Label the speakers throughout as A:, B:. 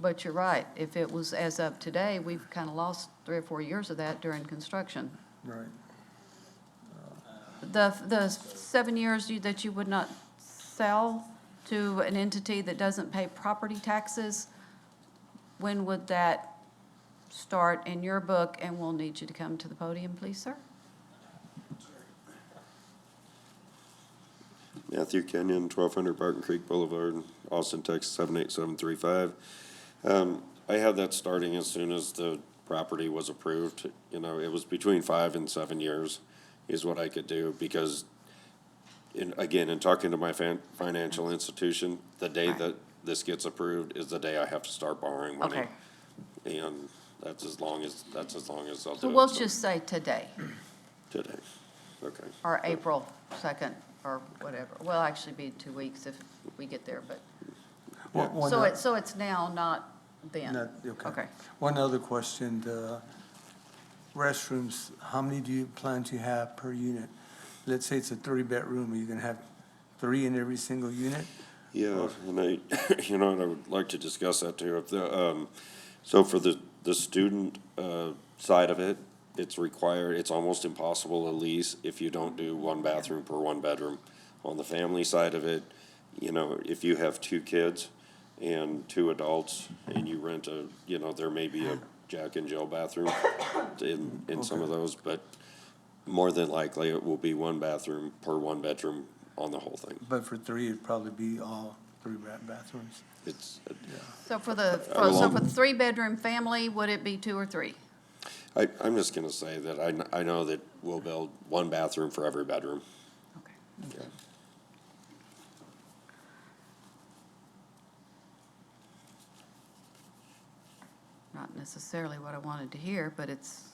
A: But you're right, if it was as of today, we've kind of lost three or four years of that during construction.
B: Right.
A: The, the seven years you- that you would not sell to an entity that doesn't pay property taxes, when would that start in your book? And we'll need you to come to the podium, please, sir.
C: Matthew Kenyon, twelve hundred Barton Creek Boulevard, Austin, Texas, seven eight seven three five. Um, I had that starting as soon as the property was approved, you know, it was between five and seven years is what I could do, because in, again, in talking to my fan, financial institution, the day
A: Right.
C: that this gets approved is the day I have to start borrowing money.
A: Okay.
C: And that's as long as, that's as long as I'll do
A: So
C: it.
A: we'll just say today,
C: Today, okay.
A: or April 2nd, or whatever. Well, actually be two weeks if we get there, but,
B: One- one
A: so
B: o-
A: it's, so it's now, not then?
B: not- Okay.
A: Okay.
B: One other question, the restrooms, how many do you plan to have per unit? Let's say it's a three-bedroom, are you gonna have three in every single unit?
C: Yeah, Uh, and I, you know, and I would like to discuss that too. If the, um, so for the, the student, uh, side of it, it's required, it's almost impossible to lease if you don't do one bathroom per one bedroom. On the family side of it, you know, if you have two kids and two adults and you rent a, you know, there may be a Jack and Jill bathroom in, in some of those, but more than likely it will be one bathroom per one bedroom on the whole thing.
B: But for three, it'd probably be all three ba- bathrooms.
C: It's,
A: So for the, for- so
C: Along-
A: for the three-bedroom family, would it be two or three?
C: I, I'm just gonna say that I, kn- I know that we'll build one bathroom for every bedroom.
A: Okay. Not necessarily what I wanted to hear, but it's,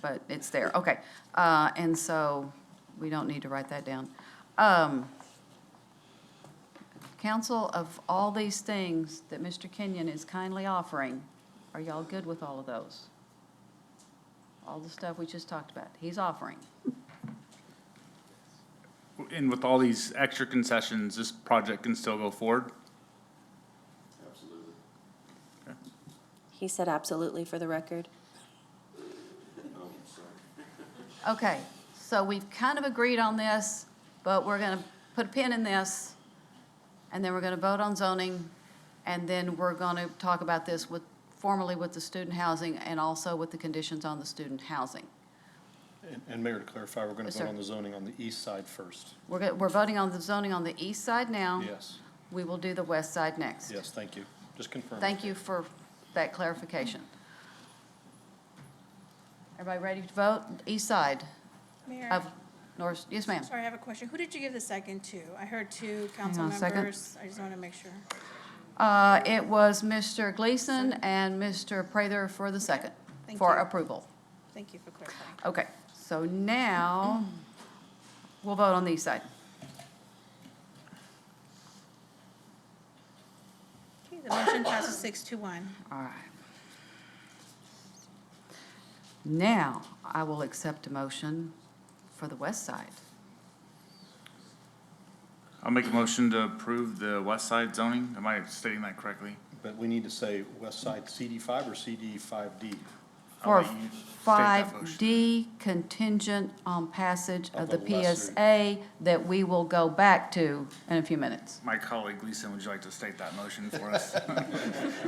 A: but it's there, okay. Uh, and so we don't need to write that down. Um, counsel, of all these things that Mr. Kenyon is kindly offering, are y'all good with all of those? All the stuff we just talked about, he's offering.
D: And with all these extra concessions, this project can still go forward?
E: He said absolutely for the record.
A: Okay, so we've kind of agreed on this, but we're gonna put a pin in this, and then we're gonna vote on zoning, and then we're gonna talk about this with, formally with the student housing and also with the conditions on the student housing.
F: And- And Mayor, to clarify, we're going
A: Yes,
F: to vote
A: sir.
F: on the zoning on the east side first.
A: We're, go- we're voting on the zoning on the east side now.
F: Yes,
A: We will do the west side next.
F: yes, thank you. Just confirm.
A: Thank you for that clarification. Everybody ready to vote? East side
G: Mayor,
A: of North, yes, ma'am.
G: sorry, I have a question. Who did you give the second to? I heard two
A: on a
G: council
A: second.
G: members. I just want to make sure.
A: Uh, It was Mr. Gleason and Mr. Prather for the second,
G: Thank
A: for
G: you.
A: approval.
G: Thank you for clarifying.
A: Okay, so now, we'll vote on the east side.
G: Okay, the motion passes six to one.
A: All right. Now, I will accept a motion for the west side.
D: I'll make a motion to approve the west side zoning. Am I stating that correctly?
F: But we need to say west side CD5 or CD5D?
A: For
D: I'll let you state that motion.
A: 5D contingent on passage of
F: Of
A: the
F: the lesser-
A: PSA that we will go back to in a few minutes.
D: My colleague Gleason, would you like to state that motion for us?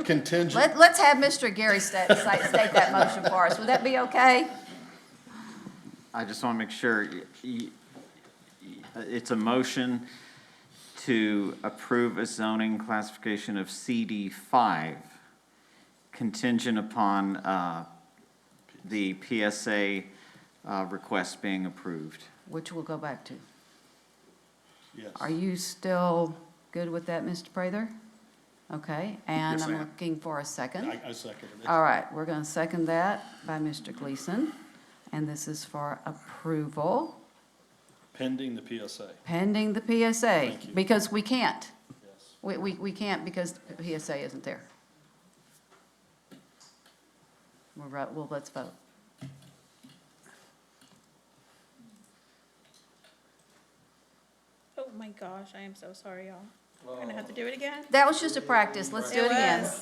F: Contingent,
A: Let- Let's have Mr. Gary sta- sta- state that motion for us. Would that be okay?
H: I just want to make sure, y- y- y- it's a motion to approve a zoning classification of CD5 contingent upon uh, the PSA uh, request being approved.
A: Which we'll go back to.
F: yes.
A: Are you still good with that, Mr. Prather? Okay, and
D: Yes, I
A: I'm
D: am.
A: looking for a second.
F: I I second it.
A: All right, we're going to second that by Mr. Gleason, and this is for approval
F: Pending the PSA,
A: pending the PSA,
F: Thank you.
A: because we can't.
F: yes.
A: We, we, we can't because the PSA isn't there. We're right, well, let's vote.
G: Oh, my gosh, I am so sorry, y'all. We're going to have to do it again?
A: That was just a practice, let's do it again.
G: was.